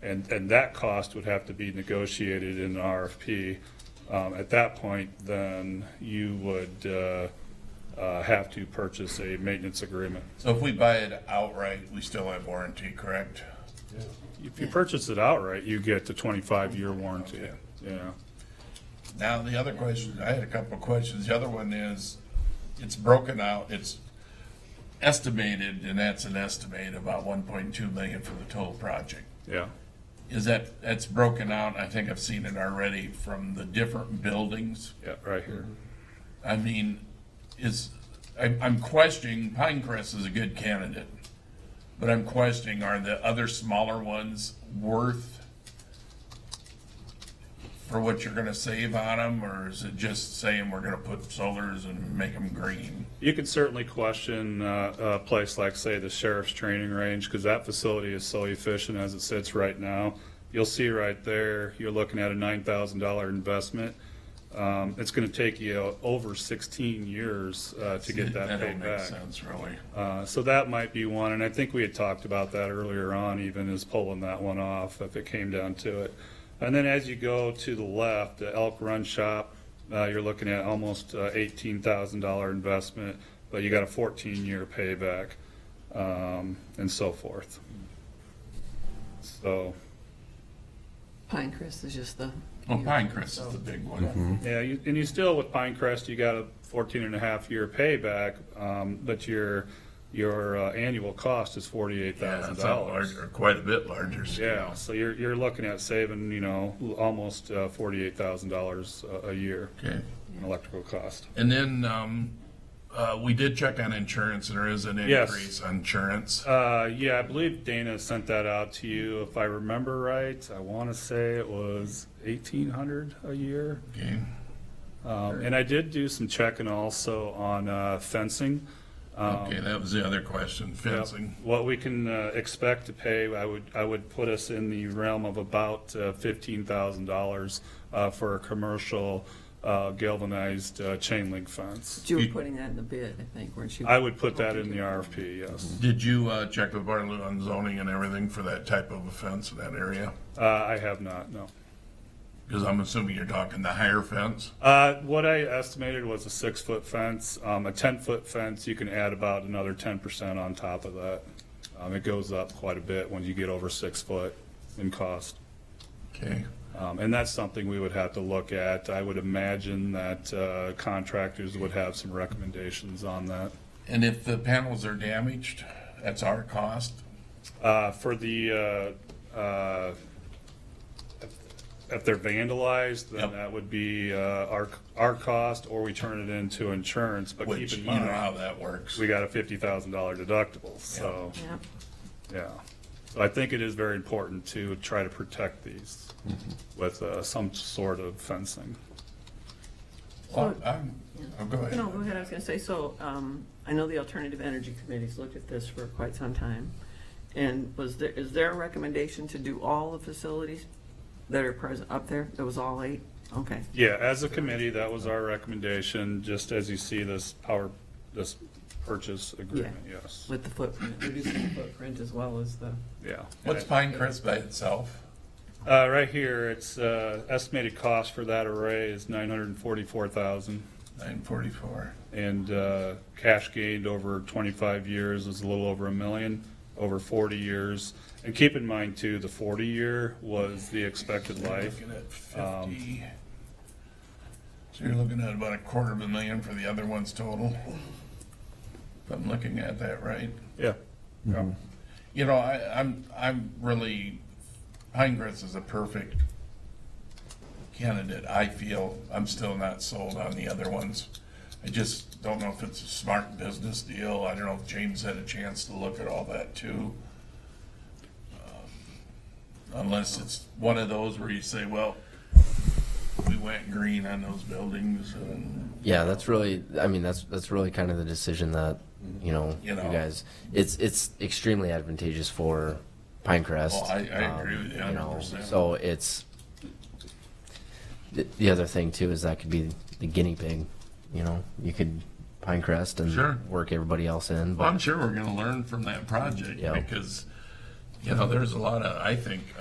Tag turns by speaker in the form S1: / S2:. S1: And, and that cost would have to be negotiated in an RFP. Um, At that point, then you would uh, uh, have to purchase a maintenance agreement.
S2: So if we buy it outright, we still have warranty, correct?
S1: If you purchase it outright, you get the 25-year warranty, yeah.
S2: Now, the other question, I had a couple of questions. The other one is, it's broken out, it's estimated, and that's an estimate, about one point two million for the total project.
S1: Yeah.
S2: Is that, that's broken out, I think I've seen it already, from the different buildings?
S1: Yeah, right here.
S2: I mean, is, I'm, I'm questioning, Pinecrest is a good candidate, but I'm questioning, are the other smaller ones worth for what you're gonna save on them, or is it just saying we're gonna put solars and make them green?
S1: You can certainly question uh, a place like, say, the sheriff's training range, because that facility is so efficient as it sits right now. You'll see right there, you're looking at a $9,000 investment. Um, It's going to take you over 16 years uh, to get that
S2: don't
S1: paid
S2: make
S1: back.
S2: sense, really.
S1: Uh, So that might be one, and I think we had talked about that earlier on, even as pulling that one off if it came down to it. And then as you go to the left, the Elk Run Shop, uh, you're looking at almost uh, $18,000 investment, but you got a 14-year payback um, and so forth. So,
S3: Pinecrest is just the.
S2: Well, Pinecrest is the big one.
S1: yeah, you- and you still with Pinecrest, you got a 14 and a half year payback, um, but your, your uh, annual cost is
S2: Yeah,
S1: $48,000.
S2: it's a larger, quite a bit larger
S1: Yeah,
S2: scale.
S1: so you're, you're looking at saving, you know, l- almost uh, $48,000 a- a year
S2: Okay.
S1: in electrical cost.
S2: And then, um, uh, we did check on insurance, there is an
S1: Yes.
S2: increase on insurance.
S1: Uh, yeah, I believe Dana sent that out to you, if I remember right. I want to say it was 1,800 a year.
S2: Okay.
S1: Um, And I did do some checking also on uh, fencing.
S2: Okay, that was the other question, fencing.
S1: Um, Yep. What we can uh, expect to pay, I would, I would put us in the realm of about uh, $15,000 uh, for a commercial uh, galvanized uh, chain link fence.
S3: You were putting that in the bid, I think, weren't you?
S1: I would put that in the RFP, yes.
S2: Did you uh, check with Bartlett on zoning and everything for that type of offense in that area?
S1: Uh, I have not, no.
S2: Because I'm assuming you're talking the higher fence?
S1: Uh, What I estimated was a six-foot fence. Um, A 10-foot fence, you can add about another 10% on top of that. Um, It goes up quite a bit when you get over six foot in cost.
S2: Okay.
S1: Um, And that's something we would have to look at. I would imagine that uh, contractors would have some recommendations on that.
S2: And if the panels are damaged, that's our cost?
S1: Uh, For the, uh, uh, if- if they're vandalized, then
S2: Yep.
S1: that would be uh, our, our cost, or we turn it into insurance. But
S2: Which,
S1: keep
S2: you
S1: in
S2: know how
S1: mind,
S2: that works.
S1: we got a $50,000 deductible, so,
S3: Yep.
S1: yeah. So I think it is very important to try to protect these
S2: Mm-hmm.
S1: with uh, some sort of fencing.
S2: Well, I'm- oh, go ahead.
S3: No, go ahead, I was gonna say, so, um, I know the Alternative Energy Committee's looked at this for quite some time. And was there, is there a recommendation to do all the facilities that are present up there? It was all eight? Okay.
S1: Yeah, as a committee, that was our recommendation, just as you see this power, this purchase agreement, yes,
S3: With the footprint, reducing the footprint as well as the.
S1: yeah.
S2: What's Pinecrest by itself?
S1: Uh, right here, it's, uh, estimated cost for that array is nine hundred and forty-four thousand.
S2: Nine forty-four.
S1: And, uh, cash gained over twenty-five years is a little over a million, over forty years. And keep in mind too, the forty year was the expected life. um,
S2: Looking at fifty. So you're looking at about a quarter of a million for the other ones total? If I'm looking at that right?
S1: Yeah. Yeah.
S2: Mm-hmm. You know, I, I'm, I'm really, Pinecrest is a perfect candidate, I feel. I'm still not sold on the other ones. I just don't know if it's a smart business deal. I don't know if James had a chance to look at all that too. Um, Unless it's one of those where you say, well, we went green on those buildings and,
S4: Yeah, that's really. I mean, that's that's really kind of the decision that you know
S2: Mm-hmm. You
S4: you,
S2: know.
S4: guys. It's it's extremely advantageous for Pinecrest. um,
S2: Oh, I- I agree with you
S4: You know,
S2: 100%.
S4: so it's the, the other thing too is that could be the guinea pig. You know, you could Pinecrest and
S2: Sure.
S4: work everybody else in.
S2: Well,
S4: But
S2: I'm sure we're gonna learn from that project
S4: Yeah.
S2: because, you know, there's a lot of, I think,